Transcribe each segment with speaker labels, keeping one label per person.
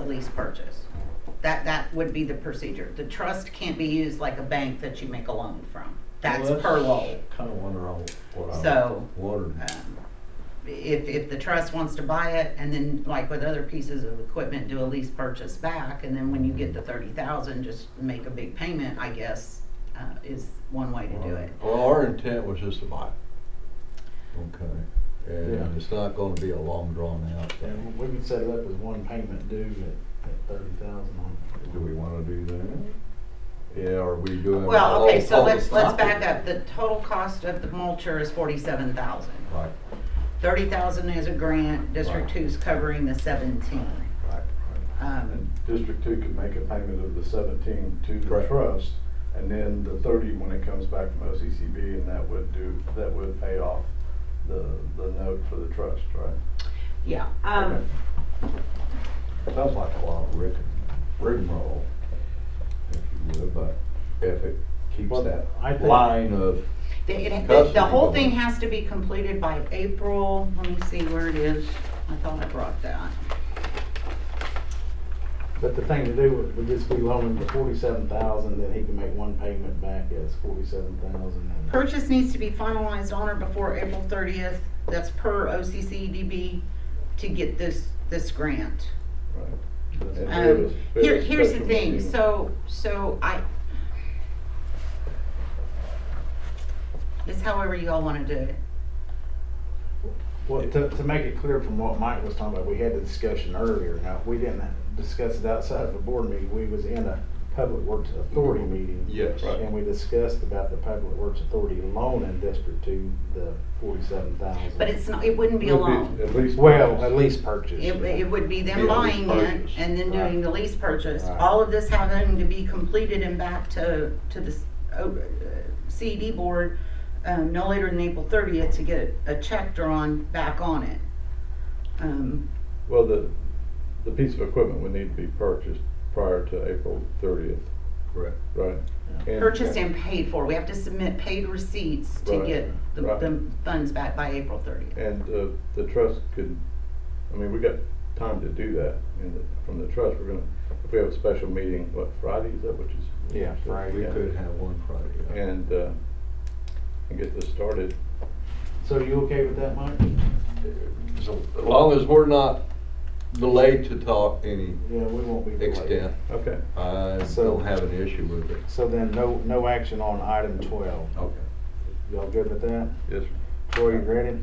Speaker 1: lease purchase. That, that would be the procedure. The trust can't be used like a bank that you make a loan from. That's per law.
Speaker 2: Kind of wonder all what I.
Speaker 1: So-
Speaker 2: Wondered.
Speaker 1: Um, If, if the trust wants to buy it and then like with other pieces of equipment, do a lease purchase back and then when you get the thirty thousand, just make a big payment, I guess, uh, is one way to do it.
Speaker 2: Well, our intent was just to buy. Okay,
Speaker 3: Yeah.
Speaker 2: and it's not gonna be a long drawn out thing.
Speaker 3: And we can set it up as one payment due at, at thirty thousand on.
Speaker 2: Do we wanna do that? Yeah, are we doing?
Speaker 1: Well, okay,
Speaker 2: all
Speaker 1: so let's,
Speaker 2: public
Speaker 1: let's back
Speaker 2: property?
Speaker 1: up. The total cost of the mulcher is forty-seven thousand.
Speaker 2: Right,
Speaker 1: Thirty thousand is a grant, District
Speaker 2: Right.
Speaker 1: Two's covering the seventeen.
Speaker 2: right, right.
Speaker 1: Um,
Speaker 4: And District Two could make a payment of the seventeen to the
Speaker 2: Correct.
Speaker 4: trust, and then the thirty when it comes back from OCCB, and that would do, that would pay off the, the note for the trust, right?
Speaker 1: yeah, um,
Speaker 2: Sounds like a lot of rig, rigmarole, if you would, but if it keeps
Speaker 3: Well,
Speaker 2: that
Speaker 3: I think-
Speaker 2: line of,
Speaker 1: the, it- the,
Speaker 2: Custody
Speaker 1: the whole thing
Speaker 2: going.
Speaker 1: has to be completed by April, let me see where it is. I thought I brought that.
Speaker 3: But the thing to do would, would just be loaning the forty-seven thousand, then he can make one payment back as forty-seven thousand and.
Speaker 1: Purchase needs to be finalized on or before April thirtieth, that's per OCCDB, to get this, this grant.
Speaker 4: right?
Speaker 1: Um, Here, here's the thing, so, so I. It's however you all wanna do it.
Speaker 3: Well, to, to make it clear from what Mike was talking about, we had the discussion earlier. Now, we didn't discuss it outside of the board meeting. We was in a public works authority meeting.
Speaker 2: yes.
Speaker 3: And we discussed about the public works authority loan in District Two, the forty-seven thousand.
Speaker 1: But it's not, it wouldn't be a loan.
Speaker 4: At least.
Speaker 3: Well, at least purchase.
Speaker 1: It,
Speaker 3: yeah.
Speaker 1: it would be
Speaker 2: Be
Speaker 1: them
Speaker 2: a lease
Speaker 1: buying it
Speaker 2: purchase.
Speaker 1: and then doing
Speaker 3: Right.
Speaker 1: the lease purchase.
Speaker 3: Right.
Speaker 1: All of this having to be completed and back to, to the uh, CED E board, um, no later than April thirtieth to get a check drawn back on it. Um,
Speaker 4: Well, the, the piece of equipment would need to be purchased prior to April thirtieth,
Speaker 2: Correct.
Speaker 4: right? And-
Speaker 1: purchased and paid for. We have to submit paid receipts to
Speaker 4: Right,
Speaker 1: get the,
Speaker 4: right.
Speaker 1: the funds back by April thirtieth.
Speaker 4: And uh, the trust could, I mean, we got time to do that, and the- from the trust, we're gonna, if we have a special meeting, what, Friday, is that what you?
Speaker 3: Yeah, Friday.
Speaker 2: We
Speaker 4: Yeah.
Speaker 2: could have one Friday.
Speaker 4: And, uh, and get this started.
Speaker 3: So you okay with that, Mike?
Speaker 2: So, As long as we're not delayed to talk any
Speaker 3: Yeah, we won't be delayed.
Speaker 2: extent,
Speaker 4: Okay,
Speaker 2: I
Speaker 3: So-
Speaker 2: don't have an issue with it.
Speaker 3: So then, no, no action on item twelve.
Speaker 2: Okay.
Speaker 3: Y'all good with that?
Speaker 4: yes,
Speaker 3: Troy, you ready?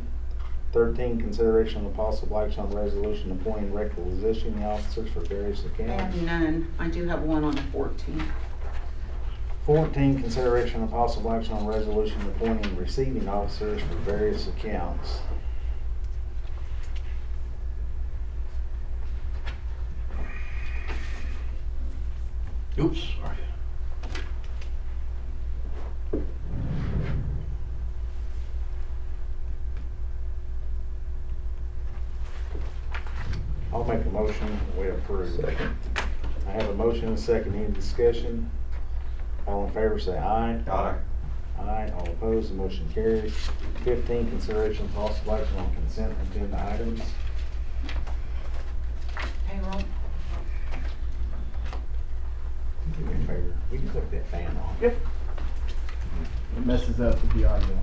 Speaker 3: Thirteen, consideration of possible action on resolution appointing requisitioning officers for various
Speaker 1: I have
Speaker 3: accounts.
Speaker 1: none. I do have one on the fourteenth.
Speaker 3: Fourteen, consideration of possible action on resolution appointing receiving officers for various accounts.
Speaker 2: Oops, sorry.
Speaker 3: I'll make a motion, we approve.
Speaker 4: Second.
Speaker 3: I have a motion and a second, any discussion? All in favor say aye.
Speaker 2: Aye.
Speaker 3: Aye, all opposed, the motion carries. Fifteen, consideration of possible action on consent agenda items.
Speaker 1: Payroll.
Speaker 3: Do me a favor, we can click that fan off.
Speaker 1: Yep.
Speaker 5: It messes up with the audio.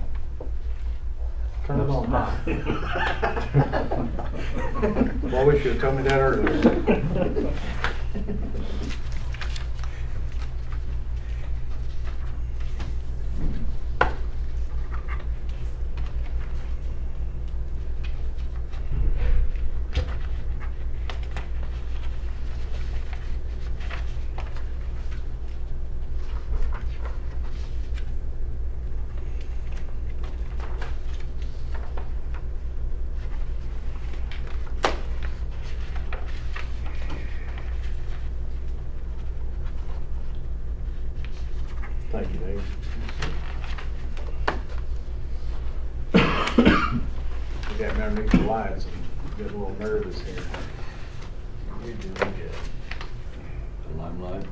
Speaker 3: Turn it on.
Speaker 2: Well,
Speaker 3: Well, we should have told me that earlier. Thank you, Dave. We got me underneath the lights, I'm getting a little nervous here. You're doing good.
Speaker 2: The Limelight.